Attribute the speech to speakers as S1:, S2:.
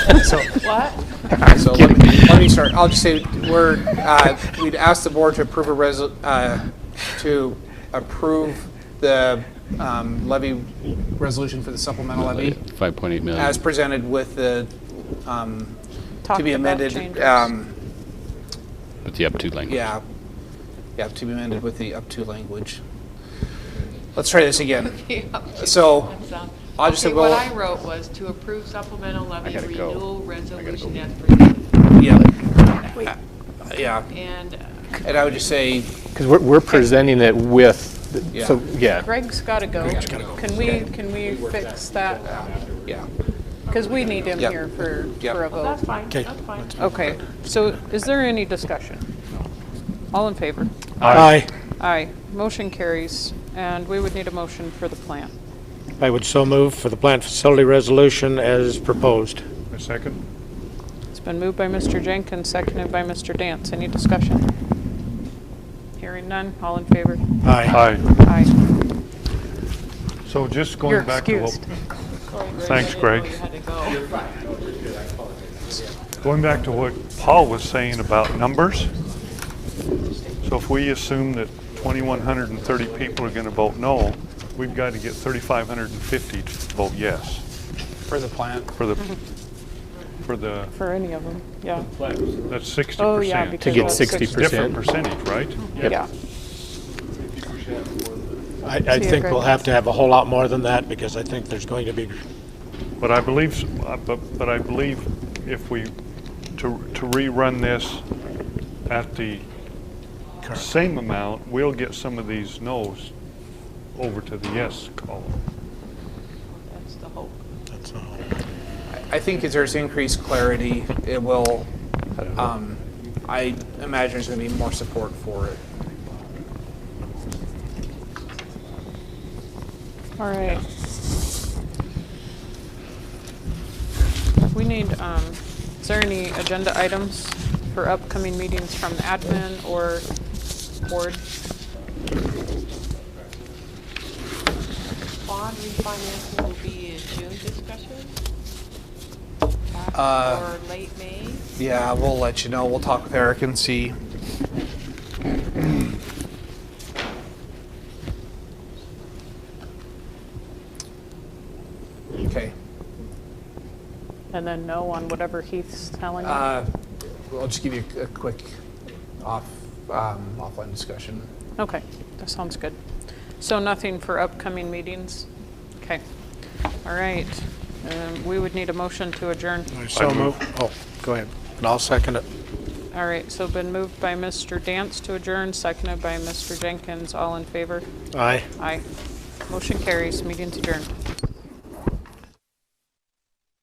S1: So,
S2: What?
S1: so let me, let me start. I'll just say, we're, uh, we'd ask the board to approve a resol, uh, to approve the, um, levy resolution for the supplemental levy
S3: 5.8 million.
S1: as presented with the, um, to
S2: Talked
S1: be
S2: about
S1: amended,
S2: changes.
S1: um,
S3: With the up to language.
S1: yeah. Yeah, to be amended with the up to language. Let's try this again. So, I'll just say,
S2: Okay, what
S1: well,
S2: I wrote was to approve supplemental levy
S3: gotta go.
S2: renewal
S3: I gotta go.
S2: resolution as presented.
S1: yeah. Uh, Yeah,
S2: And uh,
S1: and I would just say,
S4: Because we're, we're presenting it with, the- so, yeah.
S5: Greg's got to go. Can we, can we fix that?
S1: yeah,
S5: Because we need him
S1: Yep.
S5: here for,
S1: Yep.
S5: for a
S3: Oh,
S5: vote.
S2: that's fine, that's fine.
S5: Okay, so is there any discussion? All in favor?
S6: Aye.
S5: Aye. Motion carries, and we would need a motion for the plan.
S6: I would so move for the plant facility resolution as proposed.
S7: A second?
S5: It's been moved by Mr. Jenkins, seconded by Mr. Dance. Any discussion? Hearing none, all in favor?
S6: Aye.
S5: Aye.
S7: So just
S5: You're
S7: going back to what,
S5: excused.
S7: Thanks, Greg.
S2: I didn't know you had to go.
S7: going back to what Paul was saying about numbers. So if we assume that 2,130 people are going to vote no, we've got to get 3,550 to vote yes
S1: for the plant.
S7: for the, for the,
S5: For any of them, yeah.
S7: that's 60%.
S5: Oh, yeah. because
S4: get
S5: all six-
S4: 60%.
S7: Different percentage, right?
S5: Yeah.
S6: I, I
S5: So you
S6: think
S5: agree?
S6: we'll have to have a whole lot more than that because I think there's going to be,
S7: But I believe, s- uh, but, but I believe if we, to, to rerun this at the same amount, we'll get some of these no's over to the yes column.
S2: That's the hope.
S6: that's all.
S1: I think as there's increased clarity, it will, um, I imagine there's gonna be more support for it.
S5: All right. We need, um, is there any agenda items for upcoming meetings from the admin or board?
S2: Bond refinancing will be in June discussion?
S1: Uh,
S2: Or late May?
S1: Yeah, we'll let you know. We'll talk with Eric and see. Okay,
S5: And then no on whatever Heath's telling you?
S1: uh, I'll just give you a quick off, um, offline discussion.
S5: Okay, that sounds good. So nothing for upcoming meetings? Okay. All right. Um, We would need a motion to adjourn.
S6: I so move. Oh, go ahead. And I'll second it.
S5: All right, so been moved by Mr. Dance to adjourn, seconded by Mr. Jenkins. All in favor?
S6: Aye.
S5: Aye. Motion carries, meeting's adjourned.